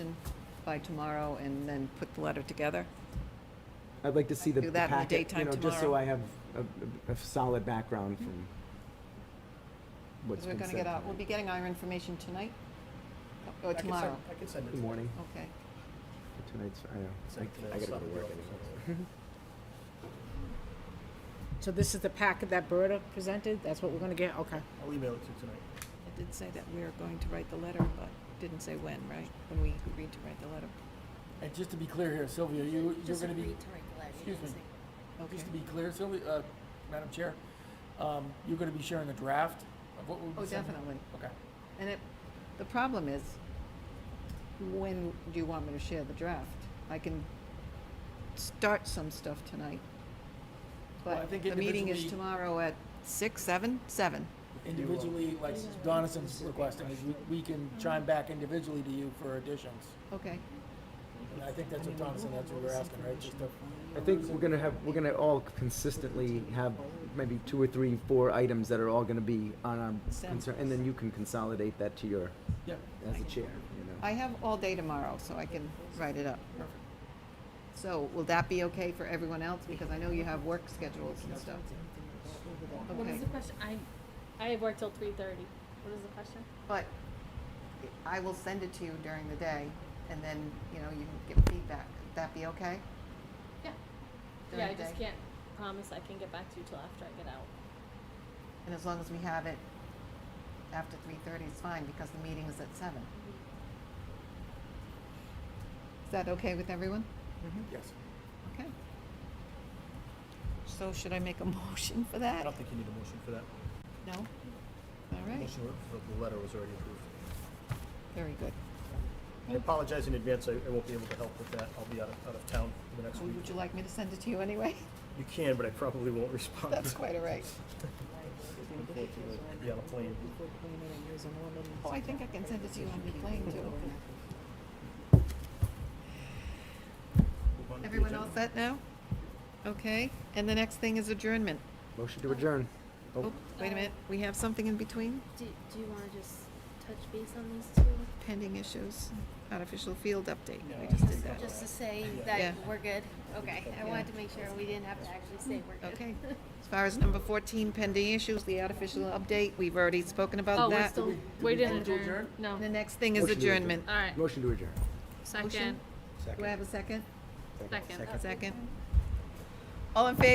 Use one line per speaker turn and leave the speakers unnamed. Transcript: by tomorrow and then put the letter together?
I'd like to see the
Do
the
that in the
packet, you
daytime
know, just so
tomorrow.
I have a- a, a solid background from what's
Because we're
been said.
gonna get out, we'll be
tonight.
getting our information tonight? Or
I can send-
tomorrow?
I can send it.
Good morning,
Okay.
tonight's, I know, I- I gotta go to work anyway.
So this is the packet that Berta presented? That's what we're gonna get? Okay.
I'll email it to you tonight.
It did say that we were going to write the letter, but didn't say when, right? When we agreed to write the letter.
And just to be clear here, Sylvia, you, you're
Just
gonna be,
agreed to write the letter, you
excuse
didn't
me.
say-
Okay.
just to be clear, Sylvia, uh, Madam Chair, um, you're gonna be sharing the draft of what we'll be
Oh,
sending?
definitely.
Okay.
And it, the problem is, when do you want me to share the draft? I can start some stuff tonight.
Well, I
But
think
the meeting is
individually-
tomorrow at six, seven, seven.
Individually, like Donison's requesting, is we, we can chime back individually to you for additions.
Okay.
And I think that's what Donison, that's what we're asking, right? Just a
I think we're gonna have, we're gonna all consistently have maybe two or three, four items that are all gonna be on our
Sounds-
concern, and then you can consolidate that to your,
Yeah.
as a chair, you know.
I have all day tomorrow, so I can write it up. So will that be okay for everyone else? Because I know you have work schedules and stuff.
What
Okay.
is the question? I, I have worked till three thirty. What is the question?
But I will send it to you during the day, and then, you know, you can give feedback. Would that be okay?
Yeah.
During
Yeah, I
the
just
day?
can't promise I can get back to you till after I get out.
And as long as we have it after three thirty is fine, because the meeting is at seven. Is that okay with everyone?
Yes.
Okay. So should I make a motion for
I
that?
don't think you need a motion for that.
No? All
The
right,
motion for the letter was already approved.
very good.
I apologize in advance, I, I won't be able to help with that. I'll be out of, out of town for the next week.
Would you like me to send it to you anyway?
You can, but I probably won't respond.
That's quite all right.
Unfortunately, I'll be on a plane.
Oh, I think I can send it to you on the plane too.
Move on to the
Everyone
agenda.
all set now? Okay, and the next thing is adjournment.
Motion to adjourn. Oh,
Oh, wait a minute, we have something in between?
Do, do you wanna just touch base on these two?
Pending issues, artificial field update, we just did that.
Just to say
Yeah.
that we're good. Okay, I
wanted
wanted to make sure we didn't have to actually say we're good.
Okay, as far as number fourteen, pending issues, the artificial update, we've already spoken about that.
we
vote to adjourn?
Oh, No.
The next thing is
Motion to adjourn.
adjournment.
Alright,
Motion to adjourn.
Motion? Do I have a second?
second.
Second. All in favor?